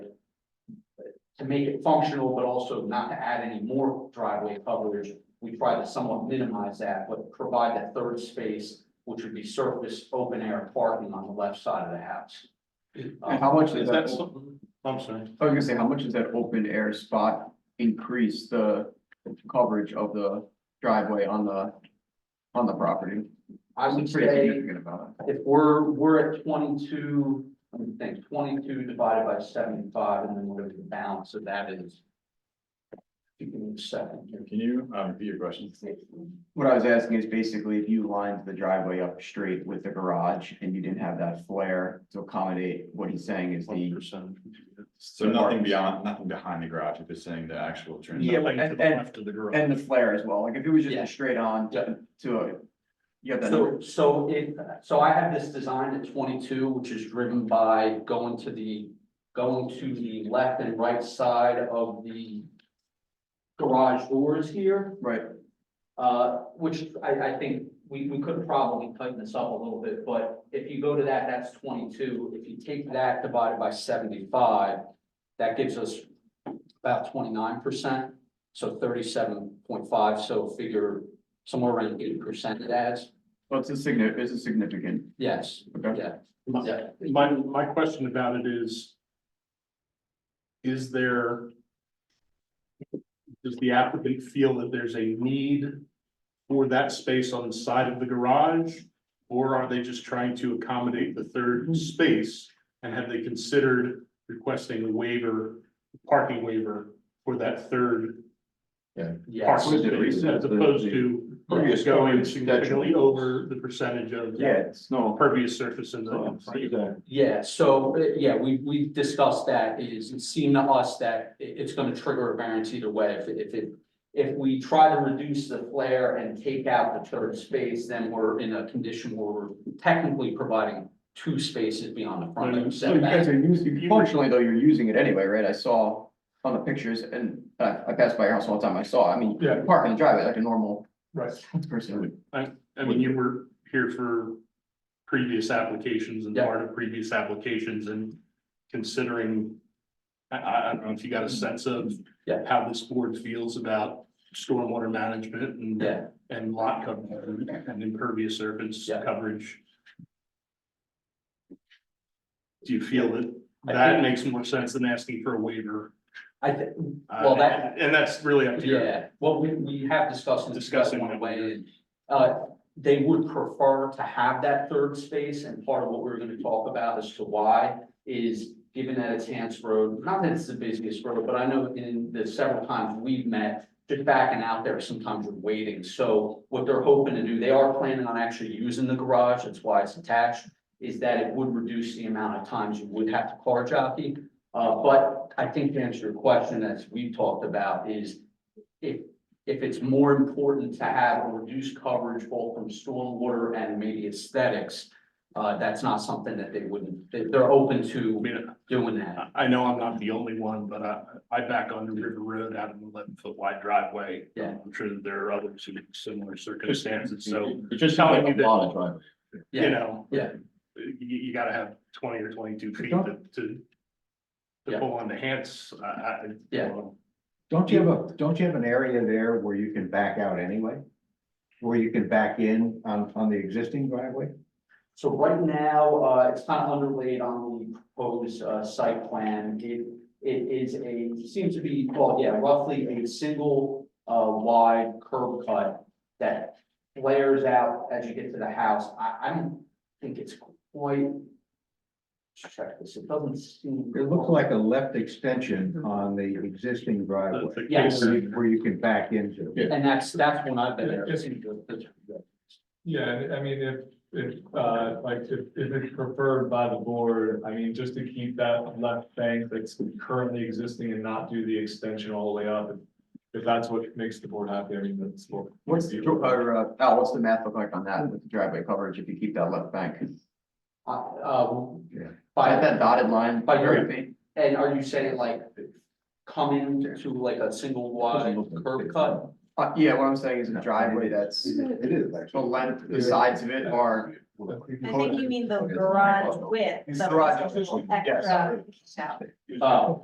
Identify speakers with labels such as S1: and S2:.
S1: to make it functional, but also not to add any more driveway coverage. We try to somewhat minimize that, but provide that third space, which would be surface, open air parking on the left side of the house. Um,
S2: And how much is that? I
S3: Uh, I'm sorry.
S2: was gonna say, how much does that open air spot increase the coverage of the driveway on the, on the property?
S1: I would
S2: It's pretty
S1: say
S2: significant about
S1: if we're, we're at twenty-two, let me think, twenty-two divided by seventy-five, and then whatever the balance of that is. Give me a second here.
S4: Can you uh, repeat your question?
S2: it. What I was asking is basically if you lined the driveway up straight with the garage and you didn't have that flare to accommodate what he's saying is the.
S3: percent.
S4: So nothing beyond, nothing behind the garage, if it's saying the actual turn.
S2: Yeah,
S3: Nothing to
S2: and-
S3: the
S2: and-
S3: left of the garage.
S2: And the flare as well, like if it was just
S1: Yeah.
S2: a straight on
S1: Yeah.
S2: to a. You have that,
S1: So, so it, so I have this design at twenty-two, which is driven by going to the, going to the left and right side of the garage doors here,
S2: right,
S1: uh, which I, I think we, we could probably tighten this up a little bit, but if you go to that, that's twenty-two. If you take that divided by seventy-five, that gives us about twenty-nine percent, so thirty-seven point five, so figure somewhere around eight percent it adds,
S2: well, it's a significant, it's a significant,
S1: yes.
S2: okay?
S1: Yeah,
S3: My,
S1: yeah,
S3: my, my question about it is. Is there? Does the applicant feel that there's a need for that space on the side of the garage? Or are they just trying to accommodate the
S2: Hmm.
S3: third space? And have they considered requesting a waiver, parking waiver for that third
S1: yes,
S3: parking
S2: Yes.
S3: space as opposed to
S2: Previous
S3: going
S2: coverage
S3: significantly
S2: detriment.
S3: over the percentage of
S2: Yeah, it's no,
S3: pervious surface in
S1: Oh,
S3: the.
S1: yeah, so, uh, yeah, we, we discussed that, is it seemed to us that i- it's gonna trigger a variance either way, if, it- if it. If we try to reduce the flare and take out the third space, then we're in a condition where we're technically providing two spaces beyond the front yard
S2: So you guys
S1: setback.
S2: are using, functionally though, you're using it anyway, right? I saw on the pictures and I, I passed by your house all the time. I saw, I mean, you
S3: Yeah.
S2: park in the driveway like a normal
S3: Right.
S2: person would.
S3: I mean, you were here for previous applications and
S1: Yeah.
S3: part of previous applications and considering. I, I, I don't know if you got a sense of
S1: Yeah.
S3: how this board feels about stormwater management and,
S1: Yeah,
S3: and lot coverage and impervious surface
S1: Yeah.
S3: coverage. Do you feel that
S1: I
S3: that
S1: think-
S3: makes more sense than asking for a waiver?
S1: I think,
S3: Uh,
S1: Well, that-
S3: And that's really up to you.
S1: Yeah, well, we, we have discussed. and
S3: Discussing
S1: one
S3: it.
S1: way, and, uh, they would prefer to have that third space, and part of what we're gonna talk about as to why is given that it's Hans Road, not that it's the busiest road, but I know in the several times we've met, just backing out there, sometimes you're waiting, so what they're hoping to do, they are planning on actually using the garage, that's why it's attached, is that it would reduce the amount of times you would have to car jockey. Uh, but I think to answer your question, as we talked about, is if, if it's more important to have a reduced coverage both from stormwater and maybe aesthetics, uh, that's not something that they wouldn't, they, they're open
S3: I
S1: to
S3: mean,
S1: doing that.
S3: I- I know I'm not the only one, but I, I back onto River Road out of an eleven foot wide driveway.
S1: Yeah. Mm-hmm.
S3: I'm sure that there are others in similar circumstances, so,
S4: You're just
S3: telling me that-
S4: lot of driveway.
S3: you
S1: Yeah,
S3: know.
S1: yeah.
S3: You, you gotta have twenty or twenty-two feet
S5: Sure.
S3: to, to
S1: Yeah.
S3: to pull on the hands, I, I.
S1: Yeah.
S5: Don't you have a, don't you have an area there where you can back out anyway? Where you can back in on, on the existing driveway?
S1: so right now, uh, it's kind of underlaid on the proposed, uh, site plan. It, it is a, seems to be, well, yeah, roughly a single, uh, wide curb cut that flares out as you get to the house. I, I don't think it's quite. Check this, it doesn't seem.
S5: It looks like a left
S2: Mm-hmm.
S5: extension on the existing
S3: the-
S5: driveway
S3: the
S1: Yes.
S3: case-
S5: where you- where you can back into.
S4: Yeah.
S1: And that's, that's when I've been.
S6: Yeah, and I mean, if, if, uh, like, if, if it's preferred by the board, I mean, just to keep that left bank that's currently existing and not do the extension all the way up. If that's what makes the board happy, I mean, that's what.
S2: What's, the dr- or, uh, Al, what's the math look like on that with the driveway coverage if you keep that left bank? Is
S1: Uh, um,
S5: Yeah.
S2: that
S1: by,
S2: that dotted line?
S1: By your-
S2: feet?
S1: and are you saying like coming to like a single wide curb cut?
S2: Uh, yeah, what I'm saying is a driveway that's,
S5: It is
S2: the
S5: actually.
S2: length, the sides of it are,
S7: I think you mean the garage width.
S2: It's
S7: so
S2: garage.
S7: it's a little
S2: Yes.
S7: extra.
S1: Uh,